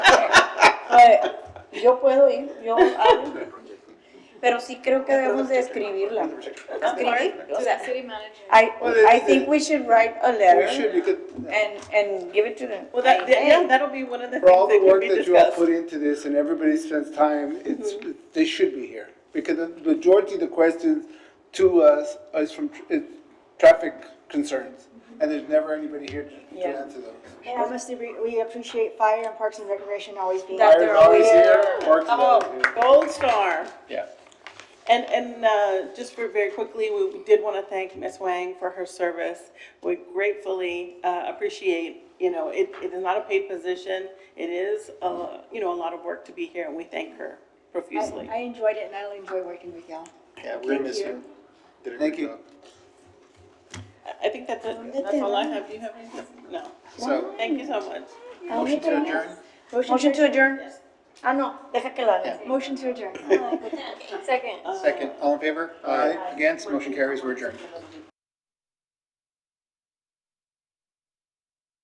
eh, yo puedo ir, yo hablo, pero sí creo que debemos de escribirla. Escribir, o To sea, the city manager. I, Well, it- I think we should write a We letter should, you could, and, and give it to them. Well, that, that- yeah, Hey, that'll be one of the for all things the that can work be that you all discussed. Mm-hmm. put into this and everybody spends time, it's, they should be here. Because the the majority of the questions to us is from, tr- is traffic concerns. Mm-hmm. And there's never anybody here to- to Yeah. answer those. And obviously, we- we appreciate Fire and Parks and Recreation always being. That Fire they're is always always here, Parks is always Oh, here. gold star. Yeah. And, and uh, just for very quickly, we did want to thank Ms. Wang for her service. We gratefully uh, appreciate, you know, it, it is not a paid position. It is, uh, you know, a lot of work to be here, and we thank her profusely. I enjoyed it and I enjoy working with y'all. Yeah, we're gonna miss you. you. Did a Thank great you. job. I- I think that's it. That's all I have. Do you have anything? No. So, Thank you so much. motion to adjourn? Motion to adjourn. Ah, no, Deja que la. motion to adjourn. Second. Uh, Second, all in favor? Aye. Against, motion carries, we're adjourned.